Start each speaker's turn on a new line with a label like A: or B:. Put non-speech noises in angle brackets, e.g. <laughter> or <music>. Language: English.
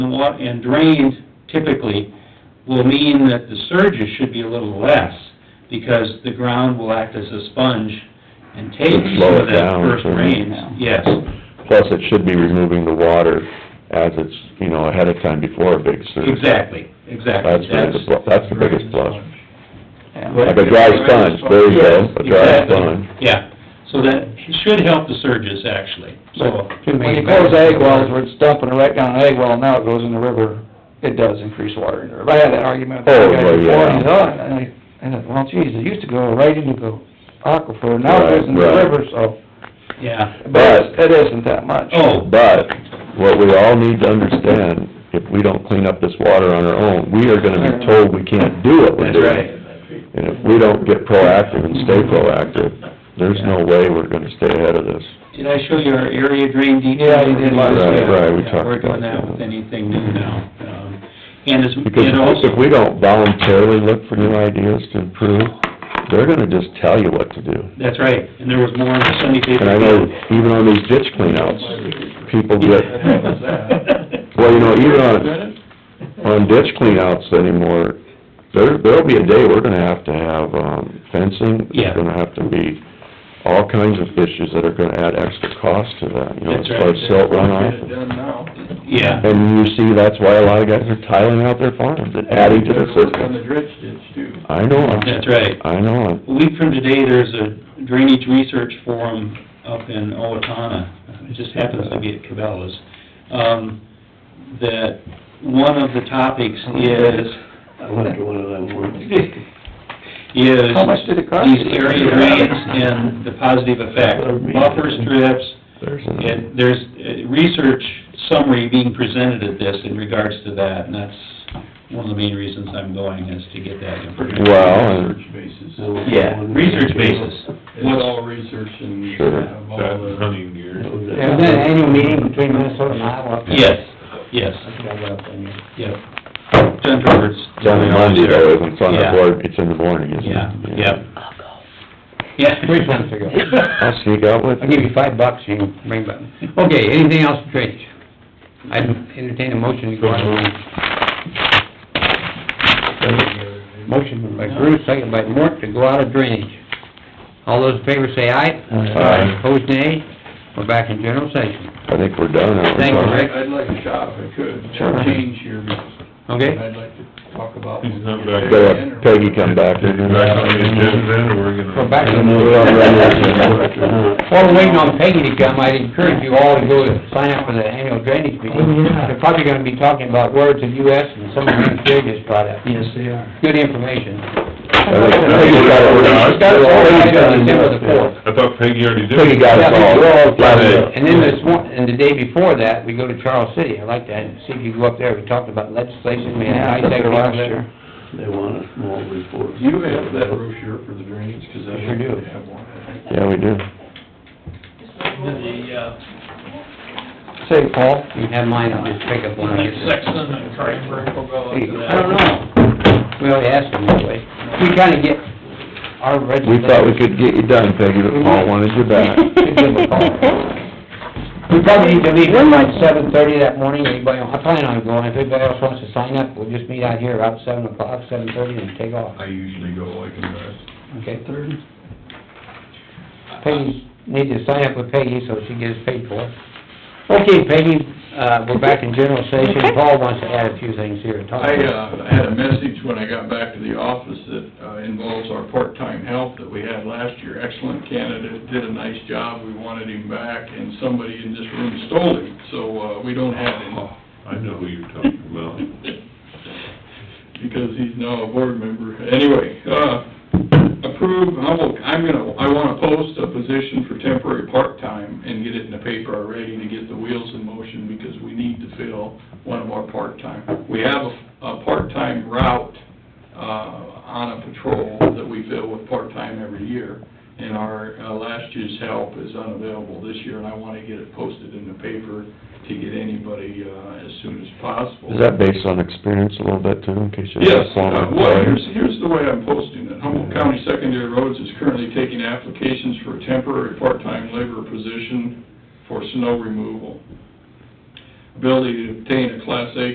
A: and what, and drained typically will mean that the surges should be a little less, because the ground will act as a sponge and take some
B: Slow
A: of
B: it
A: that
B: down,
A: first
B: so-
A: rain, yes.
B: Plus, it should be removing the water as it's, you know, ahead of time before a big surge.
A: Exactly, exactly.
B: That's really the pl- that's the biggest plus.
A: What?
B: Like a dry sponge, there you go, a dry
A: Exactly.
B: sponge.
A: Yeah, so that should help the surges, actually, so.
C: When you close ag wells, where it's dumping it right down an ag well, now it goes in the river, it does increase water in the river. I had that argument with the
B: Oh,
C: guy
B: well,
C: before, and he's,
B: yeah.
C: oh, and I, and I, well, geez, it used to go right into the aquifer, now it
B: Right,
C: goes in the
B: right.
C: river, so,
A: Yeah,
C: but it isn't that much.
A: oh,
B: But what we all need to understand, if we don't clean up this water on our own, we are gonna be told we can't do what we're
A: that's
B: doing.
A: right.
B: And if we don't get proactive and stay proactive, there's no way we're gonna stay ahead of this.
A: Did I show you our area drain detail?
C: Yeah, you did last
B: Right,
C: week.
B: right, we talked
A: We're
B: about
A: doing that
B: that.
A: with anything new now. Um, And it's, and
B: Because if
A: also,
B: we don't voluntarily look for new ideas to improve, they're gonna just tell you what to do.
A: that's right, and there was more in the Sunday paper.
B: And I know even on these ditch cleanouts,
A: <laughs>
B: people get, well, you know, even on, on ditch cleanouts anymore, there, there'll be a day we're gonna have to have, um, fencing.
A: Yeah.
B: There's gonna have to be all kinds of issues that are gonna add extra cost to that, you know, as
A: That's
B: far as
A: right.
B: silt runoff.
D: done now.
A: Yeah,
B: And you see, that's why a lot of guys are tiling out their farms and adding to the
D: On the
B: system.
D: dredge ditch too.
B: I know,
A: that's right.
B: I know,
A: A week from today, there's a drainage research forum up in Owatonna, it just happens to be at Cabela's, um, that one of the topics
C: Oh,
A: is... I went to one of them Is...
C: How much did it cost?
A: These area drains and the positive effect, buffer strips,
B: there's a,
A: and there's a research summary being presented at this in regards to that, and that's one of the main reasons I'm going, is to get that information.
B: well, and
D: Research basis.
A: Yeah, research basis.
D: It's all research and you
B: Sure.
D: have all the.
E: hunting gear.
F: There's an annual meeting between Minnesota and Iowa.
A: Yes, yes, yep. John Roberts.
B: it's on Monday though, isn't it? It's on the
A: Yeah.
B: board, it's in the morning, isn't it?
A: Yeah, yep. Yeah.
F: Three months ago.
A: <laughs>
B: I'll sneak out with
F: I'll give you five bucks, you can bring back. Okay, anything else for drainage? I entertain a motion to go on. Motion by Bruce, second by Mort, to go out of drainage. All those in favor say aye.
B: Aye.
F: Opposed, nay. We're back in general session.
B: I think we're done. aren't we?
F: Thank you, Rick.
D: I'd like to shop if I could,
B: Sure.
D: change here,
F: Okay?
D: I'd like to talk about.
E: He's not back.
B: Gotta have Peggy come back.
E: Did you back on the agenda then, or we're gonna?
F: Go back
B: And we're on regular agenda.
F: While we're waiting on Peggy to come, I'd encourage you all to go and sign up for the annual drainage
C: Oh,
F: meeting. They're probably gonna be talking about words of US and some of the they just brought up.
C: Yes, they are.
F: Good information.
B: I think Peggy got it organized.
F: Peggy got it organized.
E: I thought Peggy already did.
B: Peggy got us all.
F: Yeah,
B: lined up.
F: And then this one, and the day before that, we go to Charles City. I like that. See if you go up there. We talked about legislation, we had
C: Yeah,
F: high
C: I think
F: tech
C: they're last
F: last
C: year.
G: They want us more reports.
D: Do you have that brochure for the drainage, cause I
F: Sure do.
D: don't have one.
B: Yeah, we do.
C: Say, Paul,
F: You have mine, I'll just pick up one. I guess.
D: and Cranberry will go
F: I don't know. We already asked them that way. We kinda get our
B: We
F: legislation.
B: thought we could get you done, Peggy, but Paul wanted you
F: <laughs>
B: back.
F: We probably need to leave here by seven thirty that morning, anybody, I plan on going, if anybody else wants to sign up, we'll just meet out here about seven o'clock, seven thirty, and take off,
E: I usually go like that.
F: okay? Peggy, need to sign up with Peggy, so she gets paid for it. Okay, Peggy, uh, we're back in general session, Paul wants to add a few things here, talk.
D: I, uh, had a message when I got back to the office that uh, involves our part-time help that we had last year. Excellent candidate, did a nice job, we wanted him back, and somebody in this room stole him, so, uh, we don't have him.
E: I know who you're talking about.
D: <laughs> Because he's now a board member. Anyway, uh, approve, I will, I'm gonna, I wanna post a position for temporary part-time and get it in the paper already to get the wheels in motion because we need to fill one of our part-time. We have a, a part-time route, uh, on a patrol that we fill with part-time every year. And our, uh, last year's help is unavailable this year and I wanna get it posted in the paper to get anybody, uh, as soon as possible.
B: Is that based on experience a little bit too, in case you're
D: Yes,
B: a
D: uh,
B: former
D: well, here's,
B: employee?
D: here's the way I'm posting it. Humboldt County Secondary Roads is currently taking applications for a temporary part-time labor position for snow removal. Ability to obtain a Class A